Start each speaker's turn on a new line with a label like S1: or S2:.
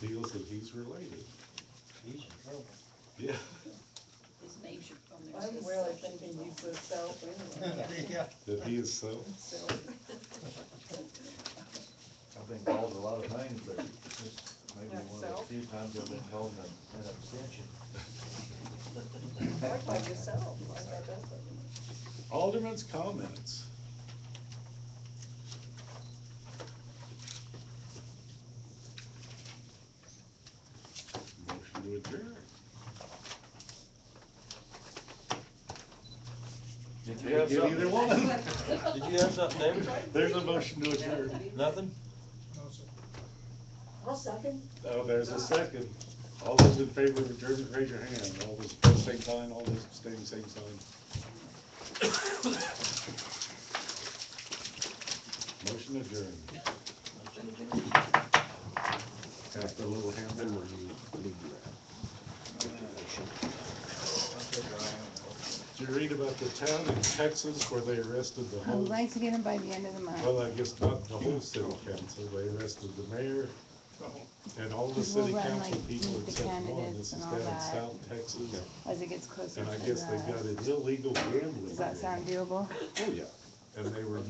S1: Needless that he's related.
S2: He's in trouble.
S1: Yeah.
S3: His name should be on there.
S4: I'm
S3: says
S4: really
S3: something.
S4: thinking you put self anyway.
S2: Yeah.
S1: That he is so.
S4: Self.
S5: I've been called a lot of things, but this may be one of the
S4: Myself?
S5: few times I've been called an an abstention.
S4: Act like yourself, like that doesn't.
S1: Alderman's comments. Motion to adjourn.
S2: Did you
S1: Yeah,
S2: have
S1: so either
S2: something?
S1: one.
S2: Did you have something, David?
S1: There's a motion to adjourn.
S2: Nothing?
S4: I'll second.
S1: Oh, there's a second. All those in favor of adjournment, raise your hand. All those opposed, same sign. All those abstaining, same sign. Motion adjourned. Got the little hammer. Did you read about the town in Texas where they arrested the
S6: I would
S1: whole,
S6: like to get them by the end of the month.
S1: well, I guess not the whole city council, they arrested the mayor and all the
S6: Because we'll
S1: city
S6: run,
S1: council
S6: like,
S1: people
S6: meet the
S1: except one.
S6: candidates
S1: This is
S6: and all
S1: down in
S6: that.
S1: South Texas.
S6: As it gets closer to
S1: And I guess they got
S6: the,
S1: an illegal gambling.
S6: does that sound doable?
S1: Oh, yeah. And they were